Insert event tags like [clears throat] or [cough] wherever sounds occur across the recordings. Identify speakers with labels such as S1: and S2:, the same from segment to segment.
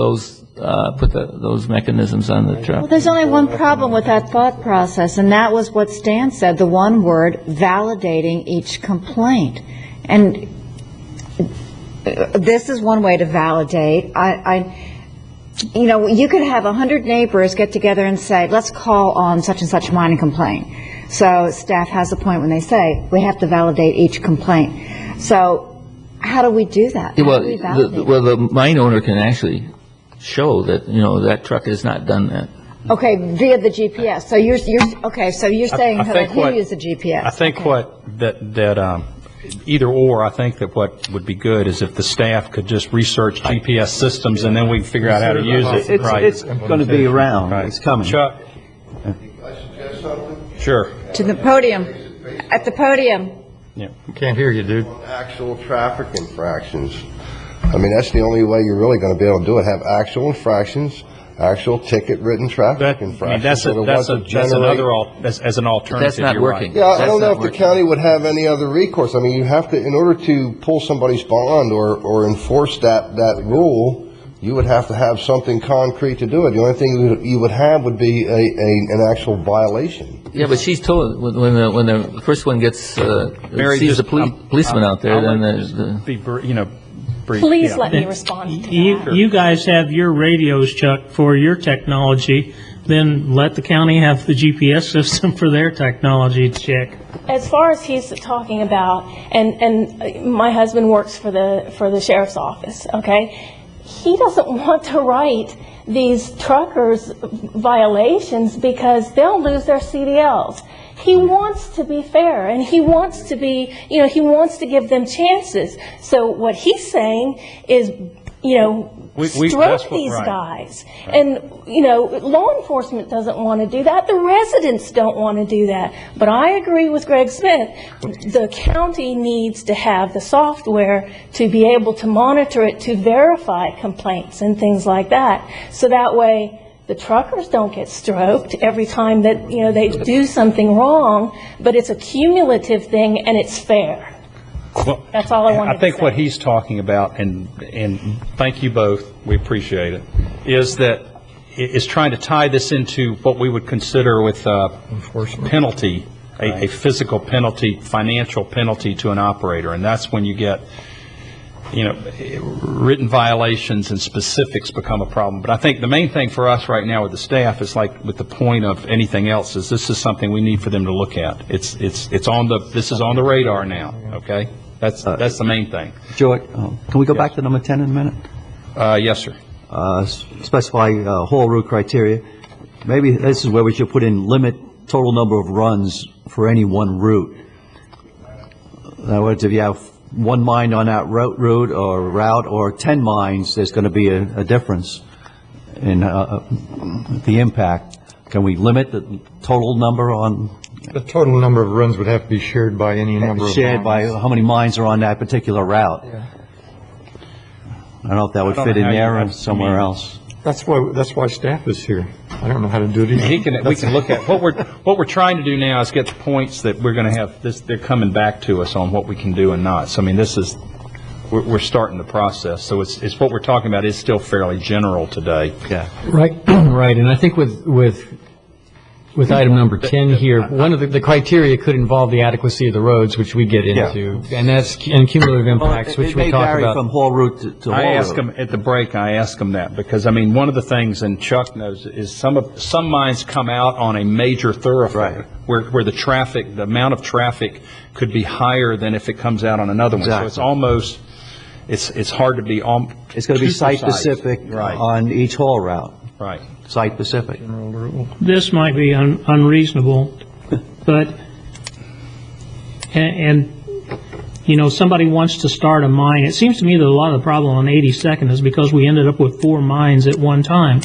S1: those, uh, put the- those mechanisms on the truck.
S2: Well, there's only one problem with that thought process, and that was what Stan said, the one word, validating each complaint. And uh, this is one way to validate. I, I, you know, you could have 100 neighbors get together and say, let's call on such and such mine and complain. So staff has a point when they say, we have to validate each complaint. So how do we do that? How
S1: Well,
S2: do we
S1: the-
S2: validate
S1: the-
S2: it?
S1: well, the mine owner can actually show that, you know, that truck has not done that.
S2: Okay, via the GPS. So you're, you're, okay, so you're saying
S3: I
S2: that
S3: think
S2: he
S3: what-
S2: used the GPS.
S3: I think what, that, that, um, either or, I think that what would be good is if the staff could just research GPS systems, and then we can figure out how to use it, right?
S4: It's, it's going to be around,
S3: Right.
S4: it's coming.
S3: Chuck? Sure,
S2: To the podium, at the podium.
S3: yeah.
S5: Can't hear you, dude.
S6: actual traffic infractions. I mean, that's the only way you're really going to be able to do it, have actual infractions, actual ticket-written
S3: That,
S6: traffic
S3: I mean, that's,
S6: infractions.
S3: a-
S6: so there
S3: that's, a-
S6: wasn't
S3: that's
S6: generate-
S3: another, al- that's, as an alternative,
S1: That's
S3: you're right.
S1: not working.
S6: Yeah, I
S1: That's
S6: don't know
S1: not
S6: if the
S1: working.
S6: county would have any other recourse. I mean, you have to, in order to pull somebody's bond or, or enforce that, that rule, you would have to have something concrete to do it. The only thing you would- you would have would be a, a, an actual violation.
S1: Yeah, but she's told, when when the, when the first one gets, uh,
S3: Mary,
S1: sees
S3: just-
S1: the poli-
S3: I'm-
S1: policeman
S3: I'm-
S1: out there,
S3: I'll
S1: then
S3: let-
S1: there's
S3: just
S1: the,
S3: Be, br- you know, brief.
S7: Please
S3: yeah.
S7: let me respond to that.
S8: You, you guys have your radios, Chuck, for your technology, then let the county have the GPS [laughs] system for their technology to check.
S7: As far as he's talking about, and, and uh, my husband works for the, for the sheriff's office, okay? He doesn't want to write these truckers violations because they'll lose their CDLs. He wants to be fair and he wants to be, you know, he wants to give them chances. So what he's saying is, you know,
S3: We- we- that's
S7: stroke
S3: what-
S7: these
S3: right.
S7: guys. And, you know, law enforcement doesn't want to do that, the residents don't want to do that. But I agree with Greg Smith, the county needs to have the software to be able to monitor it, to verify complaints and things like that. So that way, the truckers don't get stroked every time that, you know, they do something wrong, but it's a cumulative thing and it's fair.
S3: Well,
S7: That's all I wanted to
S3: I think
S7: say.
S3: what he's talking about, and, and thank you both, we appreciate it, is that, i- is trying to tie this into what we would consider with uh, penalty, a, a physical penalty, financial penalty to an operator, and that's when you get, you know, written violations and specifics become a problem. But I think the main thing for us right now with the staff is like, with the point of anything else, is this is something we need for them to look at. It's, it's, it's on the, this is on the radar now, okay? That's, that's the main thing.
S4: Joy, um, can we go back to number 10 in a minute?
S3: Uh, yes, sir.
S4: Uh, s- Specify uh, haul route criteria. Maybe this is where we should put in limit total number of runs for any one route. In other words, if you have one mine on that route, route or route, or 10 mines, there's going to be a a difference in uh, the impact. Can we limit the total number on,
S5: The total number of runs would have to be shared by any number of.
S4: shared by
S5: lines.
S4: how many mines are on that particular route? I don't know if that would
S3: don't
S4: fit
S3: know
S4: in
S3: how you-
S4: there
S3: I
S4: or
S3: mean-
S4: somewhere else.
S5: That's why, that's why staff is here. I don't know how to do it either.
S3: He can, we can look at, what we're, what we're trying to do now is get the points that we're going to have, this, they're coming back to us on what we can do and not. So, I mean, this is, we're, we're starting the process. So it's, it's what we're talking about is still fairly general today.
S4: Yeah.
S9: Right, [clears throat] right, and I think with, with, with item number 10 here, one of the, the criteria could involve the adequacy of the roads, which we get
S3: Yeah.
S9: into, and that's, cu- and cumulative impacts, which we
S4: It may
S9: talk
S4: vary from
S9: about.
S4: whole route to- to
S3: I ask
S4: whole
S3: them,
S4: route.
S3: at the break, I ask them that, because, I mean, one of the things, and Chuck knows, is some of, some mines come out on a major
S4: Right.
S3: thoroughfare, where, where the traffic, the amount of traffic could be higher than if it comes out on another one. So it's
S4: Exactly.
S3: almost, it's, it's hard to be on.
S4: It's going to be
S3: too precise.
S4: site-specific
S3: Right,
S4: on each haul route,
S3: right.
S4: site-specific.
S8: This might be un- unreasonable, [laughs] but, a- and, you know, somebody wants to start a mine. It seems to me that a lot of the problem on 82nd is because we ended up with four mines at one time.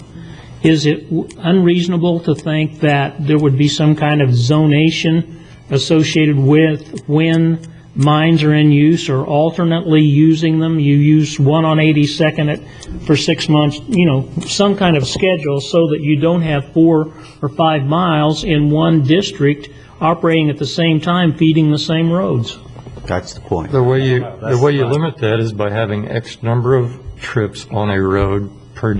S8: Is it w- unreasonable to think that there would be some kind of zonation associated with when mines are in use or alternately using them? You use one on 82nd at- for six months, you know, some kind of schedule so that you don't have four or five miles in one district operating at the same time, feeding the same roads.
S4: That's the point.
S5: The way you, the way you limit that is by having X number of trips on a road